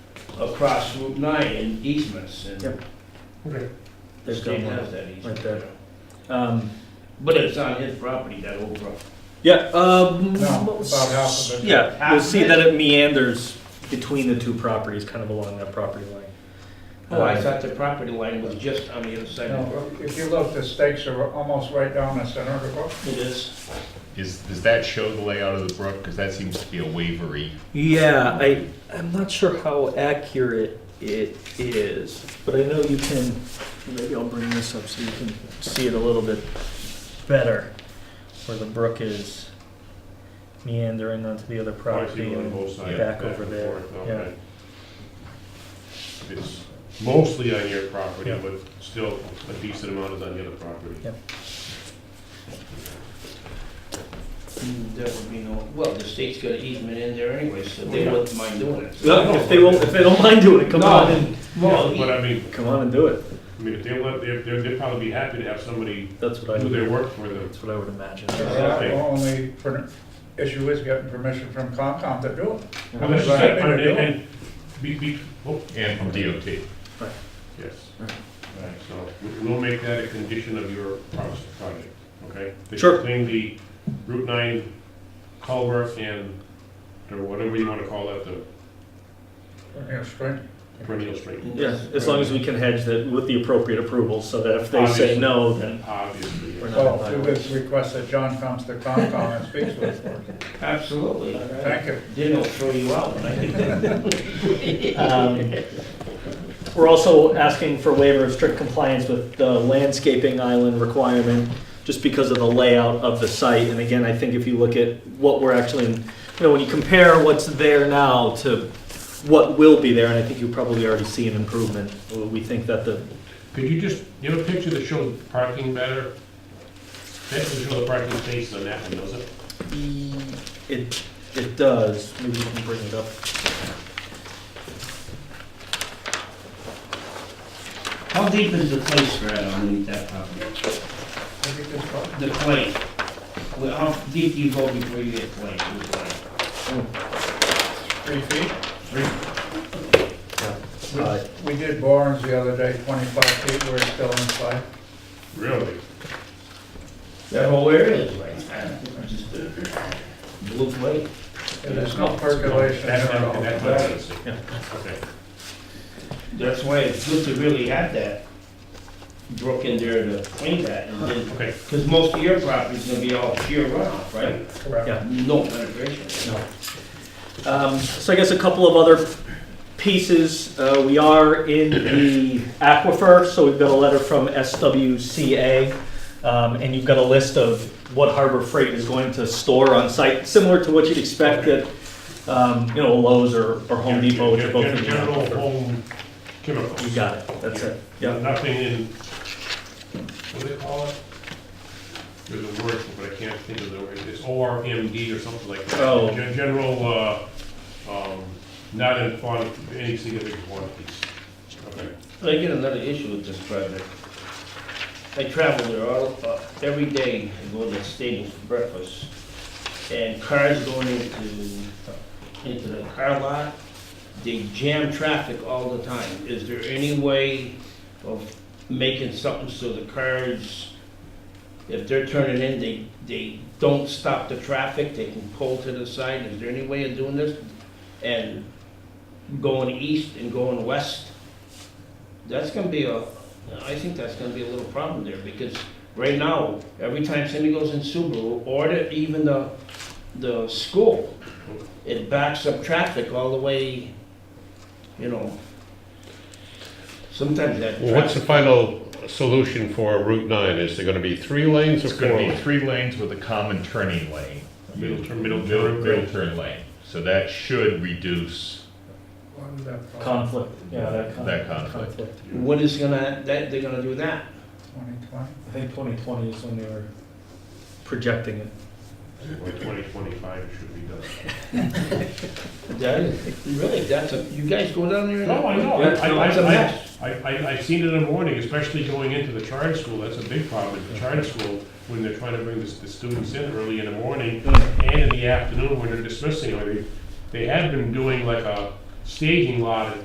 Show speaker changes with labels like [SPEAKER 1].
[SPEAKER 1] across Route 9 in easements, and
[SPEAKER 2] Yep.
[SPEAKER 3] Okay,
[SPEAKER 1] the
[SPEAKER 2] There's
[SPEAKER 1] state
[SPEAKER 2] one.
[SPEAKER 1] has that easement.
[SPEAKER 2] right there.
[SPEAKER 1] you know.
[SPEAKER 2] Um,
[SPEAKER 1] But it's on his property, that old road.
[SPEAKER 2] yeah, um.
[SPEAKER 3] no, about half of it.
[SPEAKER 2] Yeah,
[SPEAKER 1] Half
[SPEAKER 2] we'll
[SPEAKER 1] of
[SPEAKER 2] see
[SPEAKER 1] it?
[SPEAKER 2] that it meanders between the two properties, kind of along that property line.
[SPEAKER 1] Oh, I
[SPEAKER 2] Um,
[SPEAKER 1] thought the property line was just on the other side of the road.
[SPEAKER 3] No, If you look, the stakes are almost right down the center of the book.
[SPEAKER 1] It is.
[SPEAKER 4] Is, does that show the layout of the brook? Because that seems to be a wavery.
[SPEAKER 2] Yeah, I, I'm not sure how accurate it is, but I know you can, maybe I'll bring this up so you can see it a little bit better, where the brook is meandering onto the other property.
[SPEAKER 5] on
[SPEAKER 2] and
[SPEAKER 5] both sides,
[SPEAKER 2] Back
[SPEAKER 5] back
[SPEAKER 2] over
[SPEAKER 5] and
[SPEAKER 2] there,
[SPEAKER 5] forth,
[SPEAKER 2] yeah.
[SPEAKER 5] okay. It's mostly on your property,
[SPEAKER 2] Yeah.
[SPEAKER 5] but still a decent amount is on the other property.
[SPEAKER 2] Yeah.
[SPEAKER 1] Mm, There would be no, well, the state's got an easement in there anyway, so they wouldn't mind doing it.
[SPEAKER 2] No, If they won't, if they don't mind doing it, come on and,
[SPEAKER 1] Well,
[SPEAKER 5] Yeah, But I mean,
[SPEAKER 2] come on and do it,
[SPEAKER 5] I mean, if they want, they're, they're- they'd probably be happy to have somebody
[SPEAKER 2] that's what I
[SPEAKER 5] do
[SPEAKER 2] would,
[SPEAKER 5] their work for them.
[SPEAKER 2] that's what I would imagine.
[SPEAKER 3] The only per- issue is getting permission from Concom to do it.
[SPEAKER 5] I mean,
[SPEAKER 3] That's what I think
[SPEAKER 5] And,
[SPEAKER 3] they're doing.
[SPEAKER 5] and be, be, oh,
[SPEAKER 4] And from DOT.
[SPEAKER 5] yes,
[SPEAKER 1] Right.
[SPEAKER 5] so we- we'll make that a condition of your promise- project, okay? That you
[SPEAKER 2] Sure.
[SPEAKER 5] Clean the Route nine culvert and, or whatever you wanna call that, the
[SPEAKER 3] Yeah, straight.
[SPEAKER 5] perennial stream.
[SPEAKER 1] And
[SPEAKER 2] Yeah, as long as we can hedge that with the appropriate approvals, so that if they say
[SPEAKER 5] Obviously.
[SPEAKER 2] no, then
[SPEAKER 5] Obviously,
[SPEAKER 2] we're
[SPEAKER 5] yes.
[SPEAKER 2] not. in
[SPEAKER 3] So it
[SPEAKER 2] violation.
[SPEAKER 3] was request that John comes to Concom and speaks with us.
[SPEAKER 1] Absolutely.
[SPEAKER 3] Thank you.
[SPEAKER 1] Then they'll throw you out when I get done.
[SPEAKER 2] Um, We're also asking for waiver of strict compliance with the landscaping island requirement, just because of the layout of the site. And again, I think if you look at what we're actually, you know, when you compare what's there now to what will be there, and I think you probably already see an improvement. We think that the,
[SPEAKER 5] Could you just, you have a picture that shows parking better? That doesn't show the parking spaces on that one, does it?
[SPEAKER 2] it, it does, maybe you can bring it up.
[SPEAKER 1] How deep is the clay strata underneath that property?
[SPEAKER 3] Look at this book.
[SPEAKER 1] The clay, Well, how deep do you go before you get clay? Who's clay?
[SPEAKER 3] Three feet.
[SPEAKER 2] Uh,
[SPEAKER 3] We did borings the other day, 25 feet, we're still inside.
[SPEAKER 5] Really?
[SPEAKER 1] That whole area is like. Blue clay?
[SPEAKER 3] And There's no percolation
[SPEAKER 5] That's
[SPEAKER 3] at
[SPEAKER 5] not,
[SPEAKER 3] all.
[SPEAKER 5] that's not, what I see. okay.
[SPEAKER 1] That's why it's good to really have that brook in there to clean that and then,
[SPEAKER 5] Okay,
[SPEAKER 1] because most of your property's gonna be all sheer runoff, right?
[SPEAKER 3] Correct.
[SPEAKER 2] Yeah.
[SPEAKER 1] No penetration.
[SPEAKER 2] Um, So I guess a couple of other pieces. Uh, We are in the aquifer, so we've got a letter from SWCA, um, and you've got a list of what Harbor Freight is going to store on site, similar to what you'd expect at, um, you know, Lowe's or or Home Depot, which are both in the
[SPEAKER 5] General
[SPEAKER 2] aquifer.
[SPEAKER 5] home chemicals.
[SPEAKER 2] You got it, that's it.
[SPEAKER 5] Yeah,
[SPEAKER 2] Yep.
[SPEAKER 5] Nothing in, what do they call it? There's a word, for it, but I can't think of the word, it's ORMD or something like that.
[SPEAKER 2] Oh.
[SPEAKER 5] Gen- General, uh, um, not in quantity, any significant quantities. Okay.
[SPEAKER 1] But I get another issue with this project. I travel there all, uh, every day, I go to the stadium for breakfast, and cars going into, into the car lot, they jam traffic all the time. Is there any way of making something so the cars, if they're turning in, they, they don't stop the traffic, they can pull to the side? Is there any way of doing this? And going east and going west? That's gonna be a, I think that's gonna be a little problem there, because right now, every time somebody goes in Subaru, or the- even the, the school, it backs up traffic all the way, you know. Sometimes that.
[SPEAKER 6] Well, what's the
[SPEAKER 1] traffic-
[SPEAKER 6] final solution for Route 9? Is there going to be three lanes or
[SPEAKER 4] It's
[SPEAKER 6] four
[SPEAKER 4] gonna be
[SPEAKER 6] lanes?
[SPEAKER 4] three lanes with a common turning lane.
[SPEAKER 5] Middle turn, middle
[SPEAKER 4] Middle,
[SPEAKER 5] turn.
[SPEAKER 4] middle turn lane. So that should reduce,
[SPEAKER 3] What is that book?
[SPEAKER 2] Conflict, yeah, that con-
[SPEAKER 4] That conflict.
[SPEAKER 1] What is gonna, that, they're gonna do that?
[SPEAKER 3] 2020?
[SPEAKER 2] I think 2020 is when they were projecting it.
[SPEAKER 5] By twenty twenty-five, it should be done.
[SPEAKER 1] That is, really, that's a, you guys go down there? and-
[SPEAKER 5] No, I know,
[SPEAKER 2] Yeah,
[SPEAKER 5] I,
[SPEAKER 2] no,
[SPEAKER 5] I,
[SPEAKER 1] it's a
[SPEAKER 5] I,
[SPEAKER 1] mess.
[SPEAKER 5] I, I- I've seen it in the morning, especially going into the charter school, that's a big problem, at the charter school, when they're trying to bring the, s- the students in early in the morning, and in the afternoon when they're dismissing, or they, they had been doing like a staging lot at